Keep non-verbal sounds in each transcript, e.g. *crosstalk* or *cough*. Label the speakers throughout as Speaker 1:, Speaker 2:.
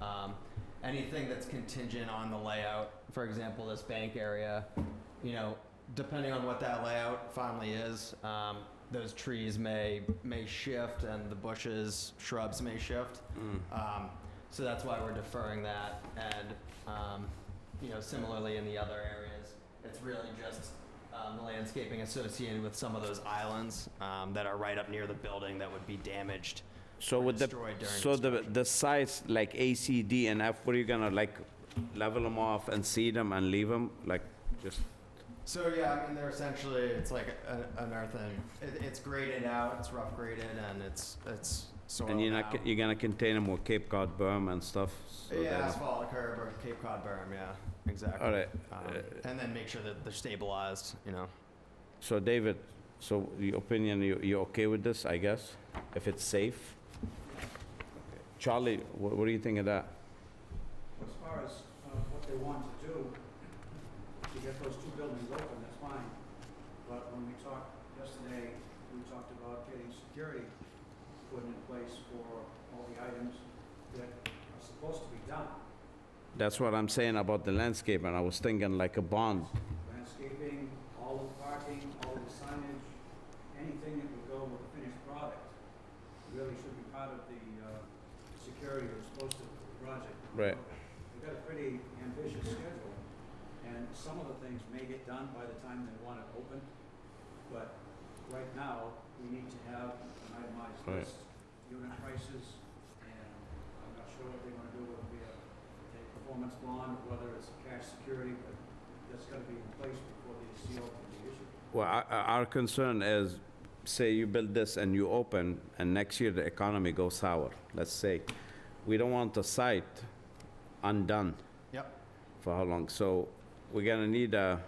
Speaker 1: Um, anything that's contingent on the layout, for example, this bank area, you know, depending on what that layout finally is, um, those trees may, may shift and the bushes, shrubs may shift. Um, so that's why we're deferring that. And, um, you know, similarly in the other areas, it's really just um, the landscaping associated with some of those islands um, that are right up near the building that would be damaged.
Speaker 2: So
Speaker 1: or
Speaker 2: with
Speaker 1: destroyed
Speaker 2: the,
Speaker 1: during
Speaker 2: so the,
Speaker 1: construction.
Speaker 2: the sites like A, C, D, and F, what are you gonna like, level them off and seed them and leave them? Like, just,
Speaker 1: So yeah, I mean they're essentially it's like a, an earthen. It, it's graded out, it's rough graded, and it's it's soil.
Speaker 2: and you're not,
Speaker 1: now.
Speaker 2: you're gonna contain them with Cape Cod berm and stuff? so
Speaker 1: yeah,
Speaker 2: that-
Speaker 1: asphalt curb or Cape Cod berm. Yeah, exactly.
Speaker 2: All right.
Speaker 1: Um,
Speaker 2: uh,
Speaker 1: and then make sure that they're stabilized. You know.
Speaker 2: So David, so your opinion, you, you're okay with this, I guess, if it's safe? Charlie, what, what do you think of that?
Speaker 3: As far as uh, what they want to do, to get those two buildings open, that's fine. But when we talked yesterday, we talked about getting security put in place for all the items that are supposed to be done.
Speaker 2: That's what I'm saying about the landscape, and I was thinking like a bond.
Speaker 3: Landscaping, all of the parking, all of the signage, anything that would go with the finished product really should be part of the uh, security that's supposed to the project.
Speaker 2: Right.
Speaker 3: We've got a pretty ambitious schedule, and some of the things may get done by the time they want it open, but right now, we need to have an itemized
Speaker 2: Right.
Speaker 3: list, unit prices, and I'm not sure what they want to do, whether it be a a performance bond, or whether it's cash security, but that's got to be in place before the CO can be issued.
Speaker 2: Well, our, our our concern is, say you build this and you open, and next year the economy goes sour, let's say. We don't want the site undone
Speaker 1: Yep.
Speaker 2: for how long? So we're gonna need a,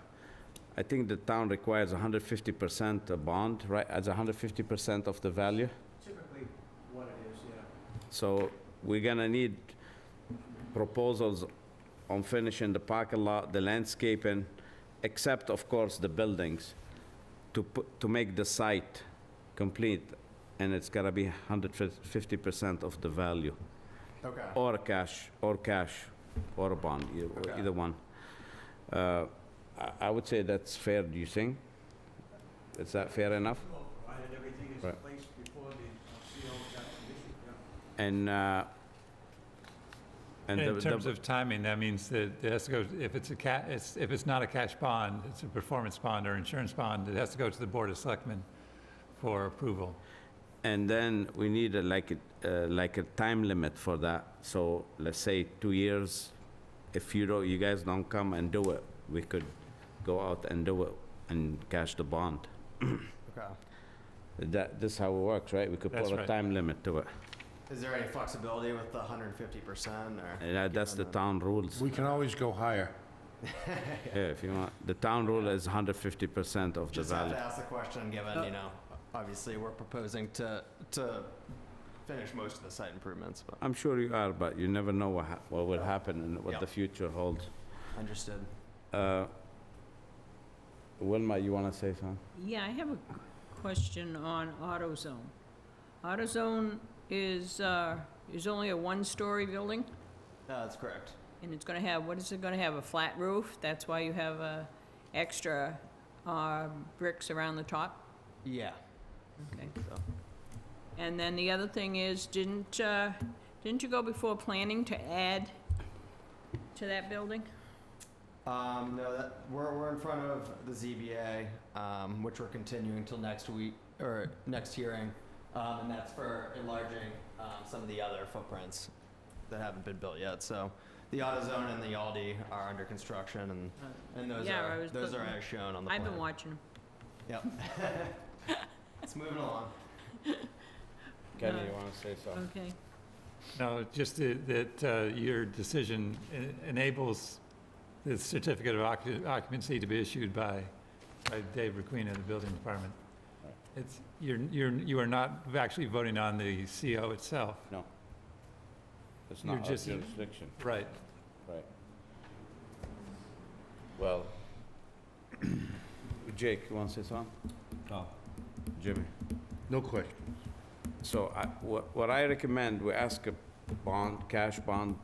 Speaker 2: I think the town requires hundred fifty percent a bond, right, as hundred fifty percent of the value?
Speaker 3: Typically, what it is, yeah.
Speaker 2: So we're gonna need proposals on finishing the parking lot, the landscaping, except of course the buildings, to put, to make the site complete, and it's gotta be hundred fifty percent of the value,
Speaker 1: Okay.
Speaker 2: or cash, or cash, or a bond, e- or
Speaker 1: Okay.
Speaker 2: either one. Uh, I, I would say that's fair, do you think? Is that fair enough?
Speaker 3: Provided everything is in
Speaker 2: Right.
Speaker 3: place before the uh, CO got issued, yeah.
Speaker 2: And, uh, and the-
Speaker 4: In
Speaker 2: the-
Speaker 4: terms of timing, that means that it has to go, if it's a ca, it's, if it's not a cash bond, it's a performance bond or insurance bond, it has to go to the Board of Selectmen for approval.
Speaker 2: And then we need a, like, a, uh, like a time limit for that. So let's say two years, if you don't, you guys don't come and do it, we could go out and do it and cash the bond.
Speaker 1: Okay.
Speaker 2: That, this is how it works, right? We could
Speaker 4: That's
Speaker 2: put a
Speaker 4: right.
Speaker 2: time limit to it.
Speaker 1: Is there any flexibility with the 150 percent or?
Speaker 2: And that- that's the town rules.
Speaker 5: We can always go higher.
Speaker 2: Yeah, if you want, the town rule is hundred fifty percent of the
Speaker 1: Just have
Speaker 2: value.
Speaker 1: to ask the question,
Speaker 2: Uh,
Speaker 1: given you know, obviously we're proposing to to finish most of the site improvements, but
Speaker 2: I'm sure you are, but you never know what, hap- what will happen and what
Speaker 1: Yeah.
Speaker 2: the future holds.
Speaker 1: understood.
Speaker 2: Uh, Wilma, you wanna say something?
Speaker 6: Yeah, I have a question on AutoZone. AutoZone is, uh, is only a one-story building,
Speaker 1: No, Uh, that's correct.
Speaker 6: and it's gonna have, what is it gonna have, a flat roof? That's why you have, uh, extra, uh, bricks around the top?
Speaker 1: Yeah.
Speaker 6: Okay.
Speaker 1: So.
Speaker 6: And then the other thing is, didn't, uh, didn't you go before planning to add to that building?
Speaker 1: Um, no, that, we're, we're in front of the ZBA, um, which we're continuing until next week, or next hearing. Um, and that's for enlarging, um, some of the other footprints that haven't been built yet. So the AutoZone and the Aldi are under construction and, and those
Speaker 6: Uh, Yeah, I
Speaker 1: are,
Speaker 6: was
Speaker 1: those are
Speaker 6: looking-
Speaker 1: as shown on the plan.
Speaker 6: I've been watching 'em.
Speaker 1: Yep. *laughs* It's moving along.
Speaker 2: Kenny,
Speaker 6: Uh,
Speaker 2: you wanna say something?
Speaker 6: Okay.
Speaker 4: No, just i- that uh, your decision en- enables the certificate of occu- occupancy to be issued by, by Dave Requena, the building department. It's, you're, you're, you are not actually voting on the CO itself.
Speaker 2: No. It's
Speaker 4: You're
Speaker 2: not our
Speaker 4: just-
Speaker 2: jurisdiction,
Speaker 4: Right.
Speaker 2: right. Well. *coughs* Jake, you want to say something? No. Jimmy?
Speaker 5: No question.
Speaker 2: So I, what, what I recommend, we ask a bond, cash bond